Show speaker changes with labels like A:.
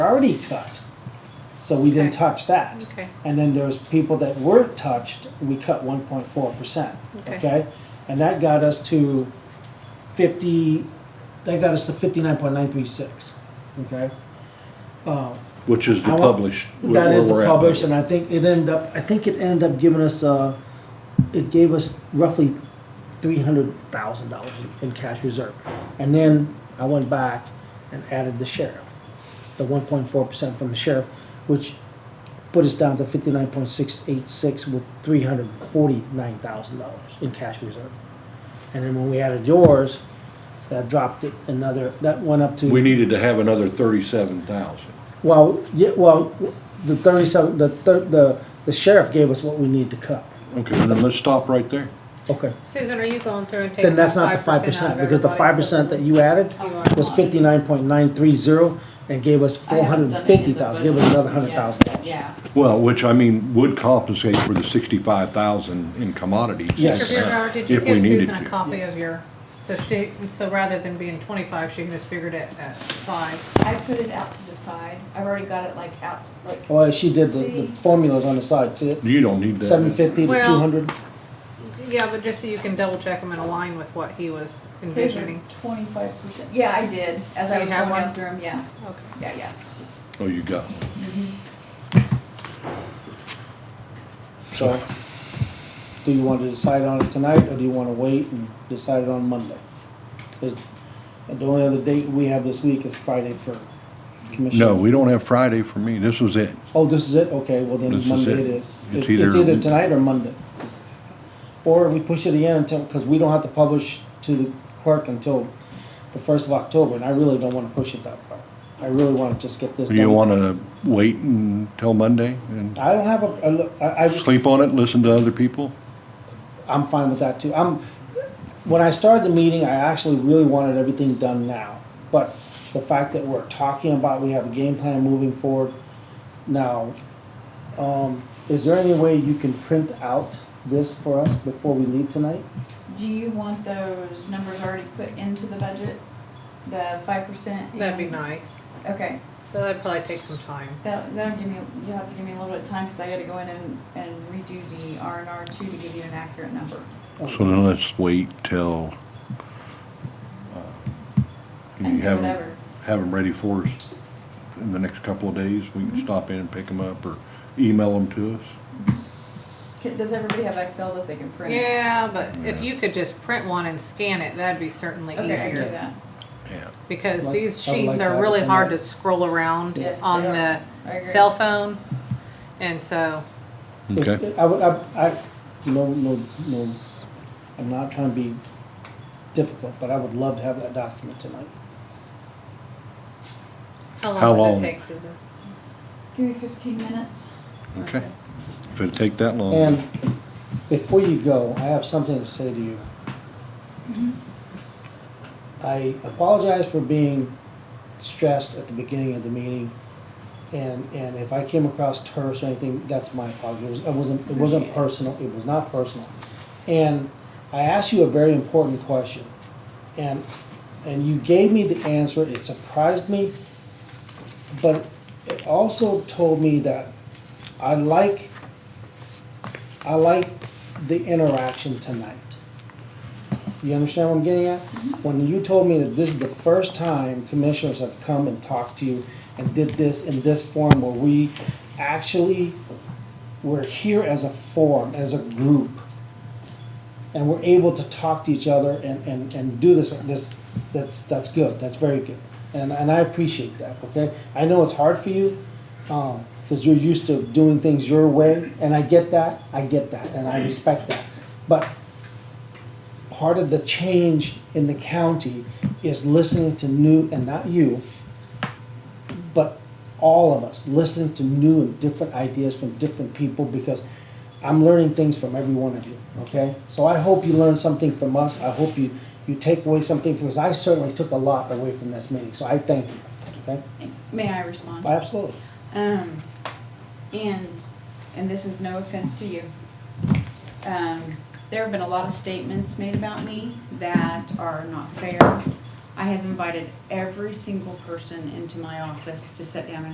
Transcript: A: already cut, so we didn't
B: Okay.
A: touch that.
B: Okay.
A: And then there was people that weren't touched, we cut one point four percent,
B: Okay.
A: okay? And that got us to fifty, that got us to fifty-nine point nine three six, okay? Uh,
C: Which is
A: I
C: the
A: want-
C: published. where-
A: That is
C: where
A: the
C: we're at.
A: published, and I think it ended up, I think it ended up giving us, uh, it gave us roughly three hundred thousand dollars in cash reserve. And then I went back and added the sheriff, the one point four percent from the sheriff, which put us down to fifty-nine point six eight six with three hundred forty-nine thousand dollars in cash reserve. And then when we added yours, that dropped it another, that went up to.
C: We needed to have another thirty-seven thousand.
A: Well, yeah, well, the thirty-seven, the, thir- the, the sheriff gave us what we need to cut.
C: Okay, then let's stop right there.
A: Okay,
B: Susan, are you going through and taking
A: then
B: the
A: that's not the five
B: five percent out
A: percent,
B: of
A: because the five
B: everybody's?
A: percent that you added
B: You are
A: was
B: wise.
A: fifty-nine point nine three zero and gave us
D: I
A: four hundred
D: haven't done
A: and
D: any of
A: fifty
D: the
A: thousand, give us another
D: budgeting
A: hundred
D: yet.
A: thousand dollars.
D: Yeah,
C: Well, which I mean, would compensate for the sixty-five thousand in commodities.
A: Yes.
B: Mr. Beardrow, did you
C: If we
B: give
C: needed
B: Susan a
C: to.
B: copy
A: Yes.
B: of your, so she, so rather than being twenty-five, she just figured it at five?
D: I put it out to the side, I've already got it like out, like,
A: Well, Oh, she did the, the
D: See?
A: formulas on the side, see it?
C: You don't need that.
A: Seven fifty to
B: Well-
A: two hundred,
B: Yeah, but just so you can double check them and align with what he was envisioning.
D: twenty-five percent, yeah, I did, as
B: Do
D: I
B: you
D: was
B: have
D: going
B: one?
D: down through them, yeah,
B: Okay.
D: yeah, yeah.
C: Oh, you got one.
A: so. Do you want to decide on it tonight, or do you wanna wait and decide it on Monday? Cause the only other date we have this week is Friday for commission.
C: No, we don't have Friday for me. This was it.
A: Oh, this is it? Okay, well
C: This
A: then
C: is
A: Monday
C: it.
A: it is.
C: It's
A: It- It's
C: either-
A: either tonight or Monday. Or we push it again until, because we don't have to publish to the clerk until the first of October, and I really don't want to push it that far. I really want to just get this
C: Do you
A: done.
C: wanna wait until Monday and
A: I don't have a- a, look, I, I,
C: sleep on it, listen to other people?
A: I'm fine with that too. I'm, when I started the meeting, I actually really wanted everything done now. But the fact that we're talking about, we have a game plan moving forward now. Um, is there any way you can print out this for us before we leave tonight?
D: Do you want those numbers already put into the budget, the five percent?
B: That'd be nice.
D: Okay,
B: So that'd probably take some time.
D: that, that'll give me, you'll have to give me a little bit of time, cause I gotta go in and, and redo the R and R two to give you an accurate number.
C: So then let's wait till, uh, you
D: And
C: have,
D: whatever.
C: have them ready for us in the next couple of days. We can stop in and pick them up or email them to us.
D: Ca- Does everybody have Excel that they can print?
B: Yeah, but if you could just print one and scan it, that'd be certainly
D: Okay, I can do
B: easier.
D: that,
C: Yeah.
B: Because
A: Like-
B: these
A: I would like
B: sheets
A: to have
B: are
A: it
B: really hard to
A: tonight.
B: scroll around
D: Yes, they
B: on
D: are.
B: the
D: I agree.
B: cell phone. And so,
C: Okay.
A: I would, I, I, no, no, no, I'm not trying to be difficult, but I would love to have that document tonight.
B: how
C: How
B: long does
C: long?
B: it take, Susan?
D: Give me fifteen minutes.
C: Okay. If it'd take that long.
A: And before you go, I have something to say to you. I apologize for being stressed at the beginning of the meeting. And, and if I came across terse or anything, that's my apology. It was- It wasn't, it wasn't
D: Appreciate it.
A: personal. It was not personal. And I asked you a very important question. And, and you gave me the answer. It surprised me. But it also told me that I like, I like the interaction tonight. You understand what I'm getting at? When you told me that this is the first time commissioners have come and talked to you and did this in this forum where we actually, we're here as a forum, as a group. And we're able to talk to each other and, and, and do this, this, that's, that's good, that's very good. And, and I appreciate that, okay? I know it's hard for you, um, cause you're used to doing things your way, and I get that, I get that, and I respect that. But part of the change in the county is listening to new, and not you, but all of us, listening to new and different ideas from different people because I'm learning things from every one of you, okay? So I hope you learn something from us. I hope you, you take away something from us. I certainly took a lot away from this meeting, so I thank you, okay?
D: May I respond?
A: Absolutely.
D: Um, and, and this is no offense to you. Um, there have been a lot of statements made about me that are not fair. I have invited every single person into my office to sit down and